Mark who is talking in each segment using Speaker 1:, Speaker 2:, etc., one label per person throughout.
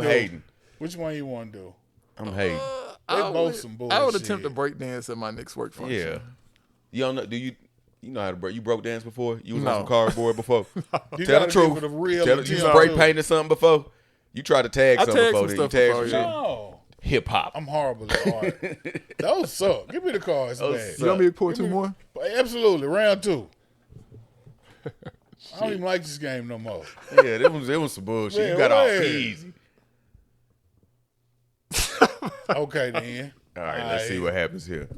Speaker 1: I'm hating.
Speaker 2: Which one you want to do?
Speaker 1: I'm hating.
Speaker 2: They
Speaker 3: I
Speaker 2: both
Speaker 3: would-
Speaker 2: some
Speaker 3: I would
Speaker 2: bullshit.
Speaker 3: attempt to break dance at my next work function.
Speaker 1: Yeah. You don't know? Do you? You know how to break? You broke dance before? You was
Speaker 3: No.
Speaker 1: on some cardboard before?
Speaker 2: You
Speaker 1: Tell
Speaker 2: gotta
Speaker 1: the
Speaker 2: give
Speaker 1: truth.
Speaker 2: it a real
Speaker 1: Tell the, you
Speaker 2: attempt.
Speaker 1: spray painted something before? You tried to tag
Speaker 3: I
Speaker 1: something
Speaker 3: tagged
Speaker 1: before?
Speaker 3: some
Speaker 1: did you
Speaker 3: stuff
Speaker 1: tag
Speaker 3: before,
Speaker 1: some
Speaker 3: yeah.
Speaker 1: shit?
Speaker 2: No,
Speaker 1: Hip hop.
Speaker 2: I'm horrible at art. Those suck. Give me the cards, man.
Speaker 3: You want me to pour two more?
Speaker 2: Absolutely, round two. I don't even like this game no more.
Speaker 1: Yeah, that was that was some bullshit.
Speaker 2: Man,
Speaker 1: you got off
Speaker 2: what?
Speaker 1: easy.
Speaker 2: Okay then.
Speaker 1: All right, let's see what happens here.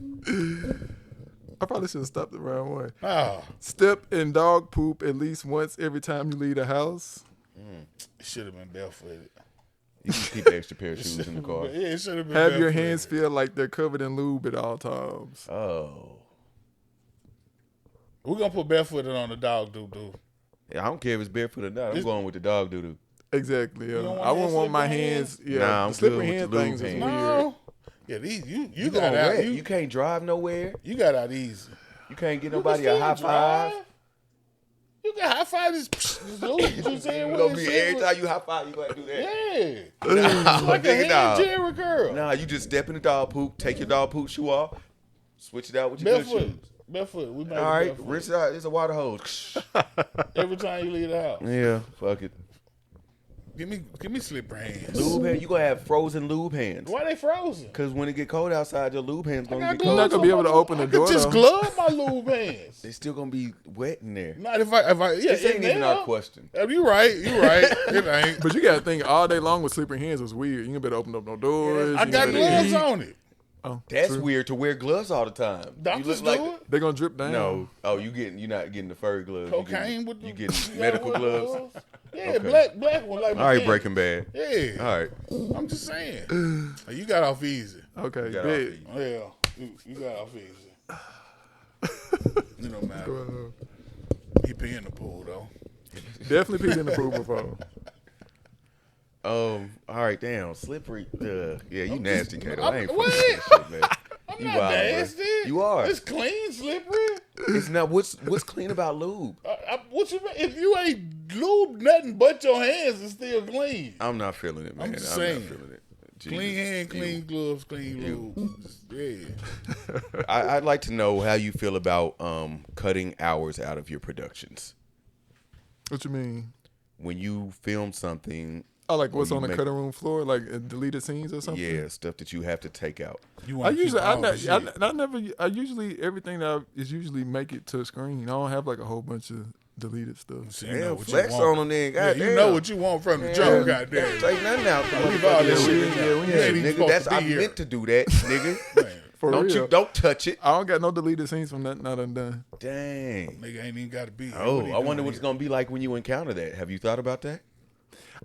Speaker 3: I probably should have stopped at round one.
Speaker 2: Oh,
Speaker 3: Step in dog poop at least once every time you leave the house.
Speaker 2: it should have been barefooted.
Speaker 1: You can keep the extra pair of shoes in the car.
Speaker 2: But yeah, it should have been.
Speaker 3: Have your
Speaker 2: barefooted.
Speaker 3: hands feel like they're covered in lube at all times.
Speaker 1: Oh,
Speaker 2: We're gonna put barefooted on the dog doo doo.
Speaker 1: Yeah, I don't care if it's barefoot or not. I'm going with the dog doo doo.
Speaker 3: Exactly. Yeah.
Speaker 2: don't want
Speaker 3: I wouldn't
Speaker 2: that
Speaker 3: want my
Speaker 2: slippery
Speaker 3: hands. Yeah.
Speaker 1: Nah, I'm
Speaker 3: the
Speaker 1: good
Speaker 3: slippery
Speaker 1: with
Speaker 3: hand
Speaker 1: the lube
Speaker 3: things is
Speaker 1: hand.
Speaker 3: weird.
Speaker 2: No. Yeah, these you you,
Speaker 1: You,
Speaker 2: got out you,
Speaker 1: Oh, you can't drive nowhere.
Speaker 2: you got out easy.
Speaker 1: You can't get
Speaker 2: You
Speaker 1: nobody
Speaker 2: can
Speaker 1: a high
Speaker 2: still drive.
Speaker 1: five.
Speaker 2: You can high five this. this dude you saying
Speaker 1: You
Speaker 2: what
Speaker 1: gonna
Speaker 2: it
Speaker 1: be
Speaker 2: said
Speaker 1: every
Speaker 2: was-
Speaker 1: time you high five, you gotta do that.
Speaker 2: Yeah,
Speaker 1: Nah,
Speaker 2: like a
Speaker 1: nigga,
Speaker 2: hand
Speaker 1: nah.
Speaker 2: Jerry girl.
Speaker 1: Nah, you just step in the dog poop, take your dog poop shoe off, switch it out with your good
Speaker 2: Barefoot.
Speaker 1: shoes.
Speaker 2: Barefoot. We made
Speaker 1: All
Speaker 2: it
Speaker 1: right,
Speaker 2: barefoot.
Speaker 1: rinse it out. It's a water hose.
Speaker 2: Every time you leave the house.
Speaker 1: yeah, fuck it.
Speaker 2: Give me give me slippery hands.
Speaker 1: Lube hand. You gonna have frozen lube hands.
Speaker 2: Why they frozen?
Speaker 1: Cause when it get cold outside, your lube hands
Speaker 2: I
Speaker 1: gonna
Speaker 2: got
Speaker 1: get
Speaker 2: gloves
Speaker 1: cold.
Speaker 3: not gonna be
Speaker 2: on
Speaker 3: able to
Speaker 2: my-
Speaker 3: open the
Speaker 2: I
Speaker 3: door,
Speaker 2: Could just
Speaker 3: though.
Speaker 2: glove my lube hands.
Speaker 1: They still gonna be wet in there.
Speaker 2: Not if I if I yeah.
Speaker 1: This ain't
Speaker 2: in
Speaker 1: even
Speaker 2: there.
Speaker 1: our question.
Speaker 2: Uh, You right. You right. It ain't.
Speaker 3: But you gotta think all day long with slippery hands was weird. You ain't better open up no doors.
Speaker 2: I
Speaker 3: you
Speaker 2: got
Speaker 3: ain't
Speaker 2: gloves
Speaker 3: better-
Speaker 2: on it.
Speaker 3: Oh,
Speaker 1: That's
Speaker 3: true.
Speaker 1: weird to wear gloves all the time. You
Speaker 2: Doctors
Speaker 1: look
Speaker 2: do
Speaker 1: like
Speaker 2: it.
Speaker 3: They're gonna drip down.
Speaker 1: no. Oh, you getting you not getting the fur gloves. You getting,
Speaker 2: Cocaine with the
Speaker 1: you getting
Speaker 2: gotta
Speaker 1: medical
Speaker 2: wear
Speaker 1: gloves.
Speaker 2: Yeah,
Speaker 1: Okay.
Speaker 2: black black one like.
Speaker 1: All right,
Speaker 2: McKinney.
Speaker 1: Breaking Bad.
Speaker 2: Yeah,
Speaker 1: All right,
Speaker 2: I'm just saying. Uh, you got off easy.
Speaker 3: Okay.
Speaker 1: got off
Speaker 3: bet.
Speaker 1: easy.
Speaker 2: Yeah, you, you got off easy. You know, matter.
Speaker 3: Uh,
Speaker 2: He pee in the pool though.
Speaker 3: Definitely peed in the pool before.
Speaker 1: Um. All right. Damn. Slippery. Ugh. Yeah. You nasty, Kato. I
Speaker 2: I'm-
Speaker 1: ain't
Speaker 2: what?
Speaker 1: fucking with that shit, man.
Speaker 2: I'm
Speaker 1: You
Speaker 2: not
Speaker 1: wild, bruh.
Speaker 2: nasty.
Speaker 1: You are.
Speaker 2: It's clean, slippery.
Speaker 1: It's not. What's What's clean about lube?
Speaker 2: I, I, what you mean? If you ain't lube nothing but your hands, it's still clean.
Speaker 1: I'm not feeling it, man. I'm,
Speaker 2: just saying.
Speaker 1: not feeling it. Jesus.
Speaker 2: Clean hand,
Speaker 1: Ew.
Speaker 2: clean gloves, clean lube. Just- Yeah.
Speaker 1: I, I'd like to know how you feel about um, cutting hours out of your productions.
Speaker 3: What you mean?
Speaker 1: When you film something,
Speaker 3: Oh, like what's
Speaker 1: you
Speaker 3: on the
Speaker 1: make-
Speaker 3: cutting room floor? Like uh, deleted scenes or something?
Speaker 1: yeah, stuff that you have to take out.
Speaker 2: You
Speaker 3: I
Speaker 2: wanna keep
Speaker 3: usually, I,
Speaker 2: all the
Speaker 3: ne-
Speaker 2: shit.
Speaker 3: I, ne- I never, I usually everything that I, is usually make it to screen. I don't have like a whole bunch of deleted stuff.
Speaker 2: So you know
Speaker 1: Damn,
Speaker 2: what you
Speaker 1: flex
Speaker 2: want.
Speaker 1: on them, then.
Speaker 2: Yeah,
Speaker 1: God
Speaker 2: you know what you want from the jump, goddamn.
Speaker 1: Take nothing out.
Speaker 2: Leave all
Speaker 1: Yeah,
Speaker 2: this
Speaker 3: Yeah,
Speaker 2: shit.
Speaker 3: we-
Speaker 2: in
Speaker 3: yeah,
Speaker 2: there.
Speaker 3: we
Speaker 2: You ain't
Speaker 3: ain't even
Speaker 2: even
Speaker 1: nigga,
Speaker 2: supposed
Speaker 1: that's
Speaker 2: to
Speaker 1: I
Speaker 2: be here.
Speaker 1: meant to do that, nigga.
Speaker 3: For
Speaker 1: don't
Speaker 3: real,
Speaker 1: you? Don't touch it.
Speaker 3: I don't got no deleted scenes from that. Not undone.
Speaker 1: Dang.
Speaker 2: Nigga ain't even got to be. Here. What
Speaker 1: Oh,
Speaker 2: he
Speaker 1: I wonder
Speaker 2: doing
Speaker 1: what it's
Speaker 2: here?
Speaker 1: gonna be like when you encounter that. Have you thought about that?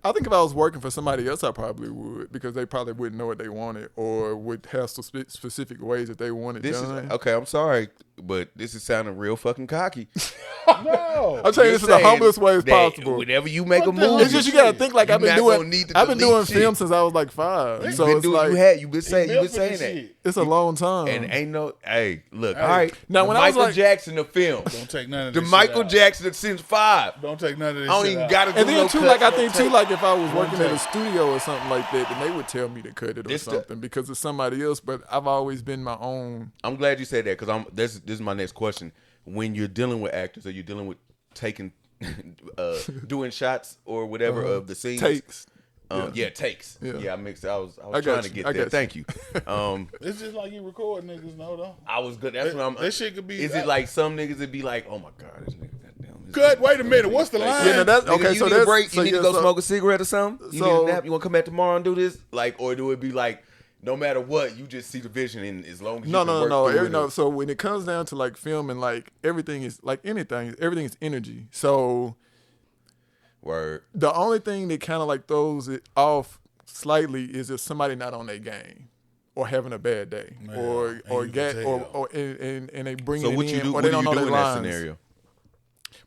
Speaker 3: I think if I was working for somebody else, I probably would because they probably wouldn't know what they wanted or would have spe- specific ways that they wanted
Speaker 1: This
Speaker 3: done.
Speaker 1: is okay. I'm sorry, but this is sounding real fucking cocky.
Speaker 2: No.
Speaker 3: I'm saying
Speaker 1: You're
Speaker 3: this is the
Speaker 1: saying
Speaker 3: humblest way as
Speaker 1: that
Speaker 3: possible.
Speaker 1: Whenever you make a
Speaker 2: What the hell?
Speaker 1: movie,
Speaker 3: It's just you gotta think like
Speaker 1: You
Speaker 3: I've been
Speaker 1: not
Speaker 3: doing.
Speaker 1: gonna need to
Speaker 3: I've been
Speaker 1: delete
Speaker 3: doing
Speaker 1: shit.
Speaker 3: film since I was like five,
Speaker 1: you
Speaker 3: so
Speaker 1: been
Speaker 3: it's
Speaker 1: doing,
Speaker 3: like
Speaker 1: you had you been saying you
Speaker 2: Built
Speaker 1: been
Speaker 2: for
Speaker 1: saying
Speaker 2: this
Speaker 1: that,
Speaker 2: shit.
Speaker 3: it's a long time.
Speaker 1: and ain't no hey look
Speaker 2: Hey.
Speaker 1: all right
Speaker 3: Now,
Speaker 1: the
Speaker 3: when I was
Speaker 1: Michael
Speaker 3: like-
Speaker 1: Jackson the film
Speaker 2: Don't take none of
Speaker 1: the
Speaker 2: this
Speaker 1: Michael
Speaker 2: shit out.
Speaker 1: Jackson of Sims Five
Speaker 2: Don't take none of this.
Speaker 1: I don't
Speaker 2: shit
Speaker 1: even
Speaker 2: out.
Speaker 1: gotta do
Speaker 3: And then
Speaker 1: no
Speaker 3: too,
Speaker 1: cut,
Speaker 3: like I
Speaker 1: no
Speaker 3: think
Speaker 1: take.
Speaker 3: too, like if I was working at a studio or something like that, then they would tell me to cut it or
Speaker 1: This the-
Speaker 3: something because it's somebody else. But I've always been my own.
Speaker 1: I'm glad you said that because I'm this this is my next question. When you're dealing with actors or you're dealing with taking uh doing shots or whatever of the scenes
Speaker 3: Uh-huh. Takes.
Speaker 1: Um, yeah. takes. Yeah.
Speaker 3: Yeah.
Speaker 1: I mixed I was I was
Speaker 3: I got
Speaker 1: trying to
Speaker 3: you.
Speaker 1: get
Speaker 3: I
Speaker 1: there.
Speaker 3: got
Speaker 1: Thank you. Um
Speaker 2: It's just like you record niggas, no though.
Speaker 1: I was good. That's what I'm
Speaker 2: That shit could be-
Speaker 1: Is it like some niggas that be like, Oh my god, this nigga goddamn this
Speaker 2: Cut.
Speaker 1: nigga-
Speaker 2: Wait a minute. What's the
Speaker 1: Like,
Speaker 2: line?
Speaker 3: Yeah, no, that's
Speaker 1: Nigga,
Speaker 3: okay.
Speaker 1: you
Speaker 3: so
Speaker 1: need a
Speaker 3: that's
Speaker 1: break.
Speaker 3: so
Speaker 1: you need
Speaker 3: yeah,
Speaker 1: to go
Speaker 3: so-
Speaker 1: smoke a cigarette or something. You
Speaker 3: so-
Speaker 1: need a nap. You want to come back tomorrow and do this, like, or do it be like, no matter what, you just see the vision, and as long as
Speaker 3: No,
Speaker 1: you can
Speaker 3: no, no,
Speaker 1: work
Speaker 3: no.
Speaker 1: through
Speaker 3: Every,
Speaker 1: it,
Speaker 3: no. So when it comes down to like filming, like everything is like anything. Everything is energy. So
Speaker 1: word.
Speaker 3: the only thing that kind of like throws it off slightly is if somebody not on their game. Or having a bad day, or
Speaker 2: and
Speaker 3: or
Speaker 2: you
Speaker 3: get,
Speaker 2: can
Speaker 3: or,
Speaker 2: tell.
Speaker 3: or and, and, and they bring
Speaker 1: So
Speaker 3: it
Speaker 1: what
Speaker 3: in,
Speaker 1: you do?
Speaker 3: or
Speaker 1: What
Speaker 3: they
Speaker 1: do you do
Speaker 3: don't know
Speaker 1: in
Speaker 3: their
Speaker 1: that
Speaker 3: lines.
Speaker 1: scenario?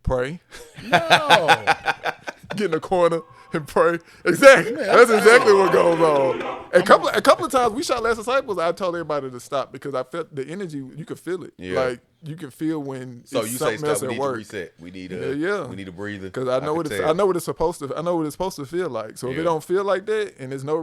Speaker 3: Pray,
Speaker 2: No.
Speaker 3: get in a corner and pray. Exactly. That's exactly what
Speaker 1: "Oh,
Speaker 3: goes on. A couple a couple of times we shot Last Disciples, I told everybody to stop because I felt the energy, you could feel it.
Speaker 1: Yeah.
Speaker 3: Like you can feel when
Speaker 1: So
Speaker 3: it's
Speaker 1: you say
Speaker 3: something
Speaker 1: stop.
Speaker 3: else
Speaker 1: We
Speaker 3: at
Speaker 1: need to
Speaker 3: work.
Speaker 1: reset. We need
Speaker 3: Yeah,
Speaker 1: a.
Speaker 3: yeah.
Speaker 1: We need a breather.
Speaker 3: Because I know
Speaker 1: can
Speaker 3: what it's,
Speaker 1: tell.
Speaker 3: I know what it's supposed to I know what it's supposed to feel like. So if
Speaker 1: Yeah.
Speaker 3: it don't feel like that and there's no